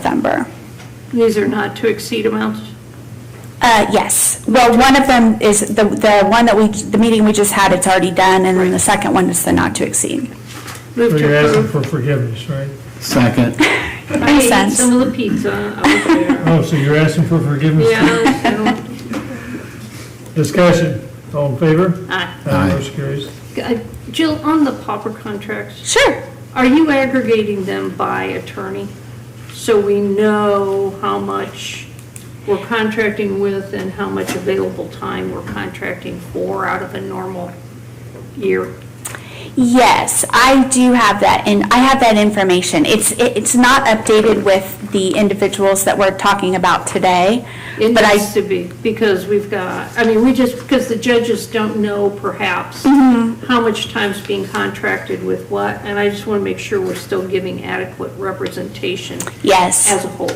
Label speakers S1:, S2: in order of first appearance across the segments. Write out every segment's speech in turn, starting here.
S1: November.
S2: These are not to exceed amounts?
S1: Uh, Yes. Well, one of them is, the the one that we, the meeting we just had, it's already done, and then the second one is the not to exceed.
S2: Move to
S3: So you're asking
S2: approve.
S3: for forgiveness, right?
S4: Second.
S2: I ate
S1: sense.
S2: some of the pizza out there.
S3: Oh, so you're asking for forgiveness?
S2: Yeah, so,
S3: Discussion, all in favor?
S2: aye.
S4: Aye.
S3: Motion carries.
S2: Uh, Jill, on the pauper contracts,
S1: Sure.
S2: are you aggregating them by attorney? So we know how much we're contracting with and how much available time we're contracting for out of a normal year?
S1: Yes, I do have that, and I have that information. It's, it- it's not updated with the individuals that we're talking about today,
S2: It
S1: but I
S2: needs to be, because we've got, I mean, we just, because the judges don't know perhaps
S1: Mm-hmm.
S2: how much time's being contracted with what, and I just want to make sure we're still giving adequate representation
S1: Yes.
S2: as a whole.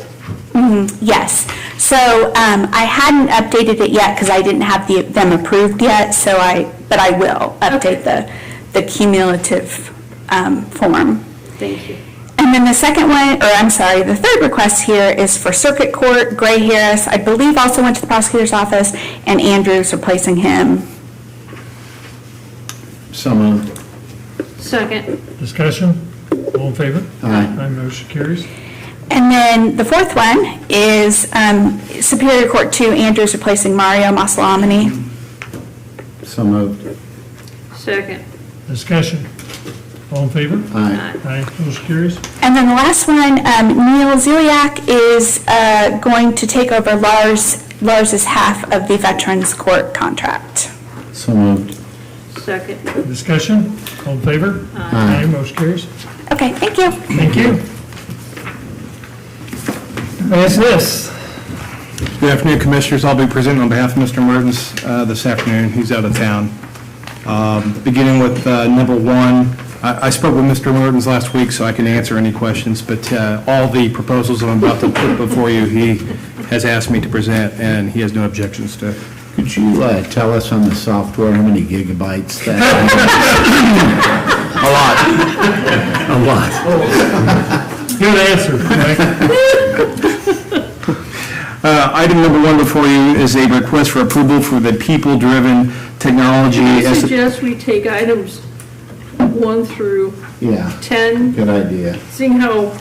S1: Mhm, Yes. So um, I hadn't updated it yet because I didn't have the- them approved yet, so I, but I will update the the cumulative um, form.
S2: Thank you.
S1: And then the second one, or I'm sorry, the third request here is for Circuit Court, Gray Harris, I believe also went to the prosecutor's office, and Andrews replacing him.
S4: So moved.
S2: Second,
S3: Discussion, all in favor?
S4: Aye.
S3: motion carries.
S1: And then the fourth one is um, Superior Court 2, Andrews replacing Mario Masalamani.
S4: So moved.
S2: second,
S3: Discussion, all in favor?
S4: Aye.
S2: aye.
S3: Aye, motion carries.
S1: And then the last one, um, Neil Ziliak is uh, going to take over Lars, Lars's half of the Veterans Court contract.
S4: So moved.
S2: second.
S3: Discussion, all in favor?
S4: Aye.
S3: motion carries.
S1: Okay, thank you.
S3: Thank you. That's this.
S5: Good afternoon, Commissioners. I'll be presenting on behalf of Mr. Mertens uh, this afternoon. He's out of town. Um, Beginning with uh, number one, I I spoke with Mr. Mertens last week, so I can answer any questions, but uh, all the proposals I'm about to put before you, he has asked me to present, and he has no objections to.
S4: Could you uh, tell us on the software how many gigabytes that? A lot. A lot.
S3: Good answer, Frank.
S5: Uh, Item number one before you is a request for approval for the people-driven technology.
S2: I
S5: as-
S2: suggest we take items one through
S4: Yeah,
S2: 10,
S4: good idea.
S2: seeing how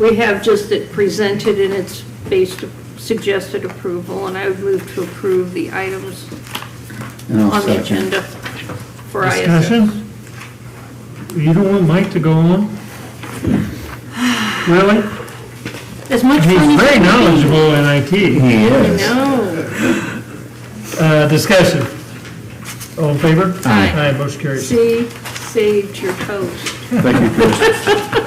S2: we have just it presented and it's based, suggested approval, and I would move to approve the items
S4: And I'll
S2: on the
S4: second.
S2: agenda for ISS.
S3: Discussion? You don't want Mike to go on? Really?
S2: As much fun as
S3: He's very
S2: it can be.
S3: knowledgeable in IT.
S4: He is.
S2: No,
S3: Uh, discussion. All in favor?
S2: Aye.
S3: Aye, motion carries.
S2: see, saved your toast.
S5: Thank you, Commissioner.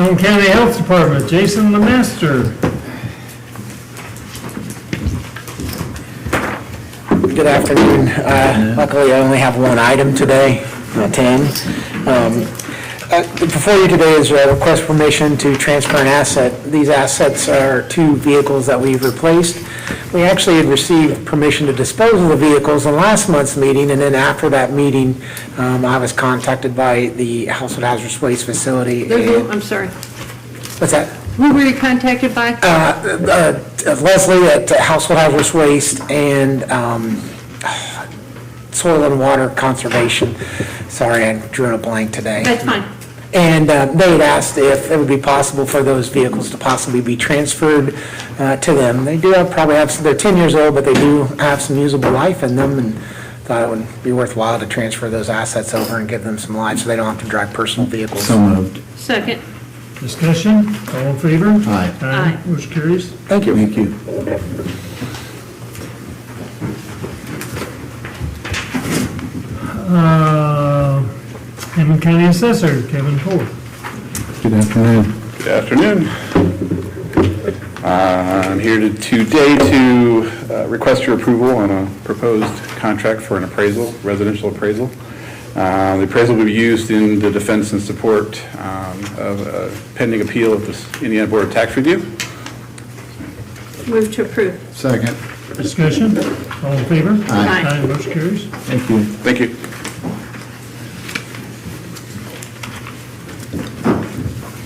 S3: Elm County Health Department, Jason Lemaster.
S6: Good afternoon. Uh, Luckily, I only have one item today, not 10. Um, uh, Before you today is a request for permission to transfer an asset. These assets are two vehicles that we've replaced. We actually had received permission to dispose of the vehicles in last month's meeting, and then after that meeting, um, I was contacted by the Household Hazardous Waste Facility.
S2: There's no-
S6: and-
S2: I'm sorry.
S6: What's that?
S2: Who were you contacted by?
S6: Uh, uh, Leslie at Household Hazardous Waste and um, Soil and Water Conservation. Sorry, I drew in a blank today.
S2: That's fine.
S6: And uh, they had asked if it would be possible for those vehicles to possibly be transferred uh, to them. They do have, probably have, they're 10 years old, but they do have some usable life in them, and thought it would be worthwhile to transfer those assets over and give them some life, so they don't have to drive personal vehicles.
S4: So moved.
S2: Second,
S3: Discussion, all in favor?
S4: Aye.
S3: Aye, motion carries.
S6: Thank you.
S4: Thank you.
S3: Uh, Hammond County Assessor, Kevin Ford.
S4: Good afternoon.
S7: Good afternoon. Uh, I'm here to- today to uh, request your approval on a proposed contract for an appraisal, residential appraisal. Uh, The appraisal will be used in the defense and support um, of a pending appeal of the Indiana Board of Tax Review.
S2: move to approve.
S4: Second.
S3: Discussion, all in favor?
S2: Aye.
S3: Aye, motion carries.
S4: Thank you.
S7: Thank you.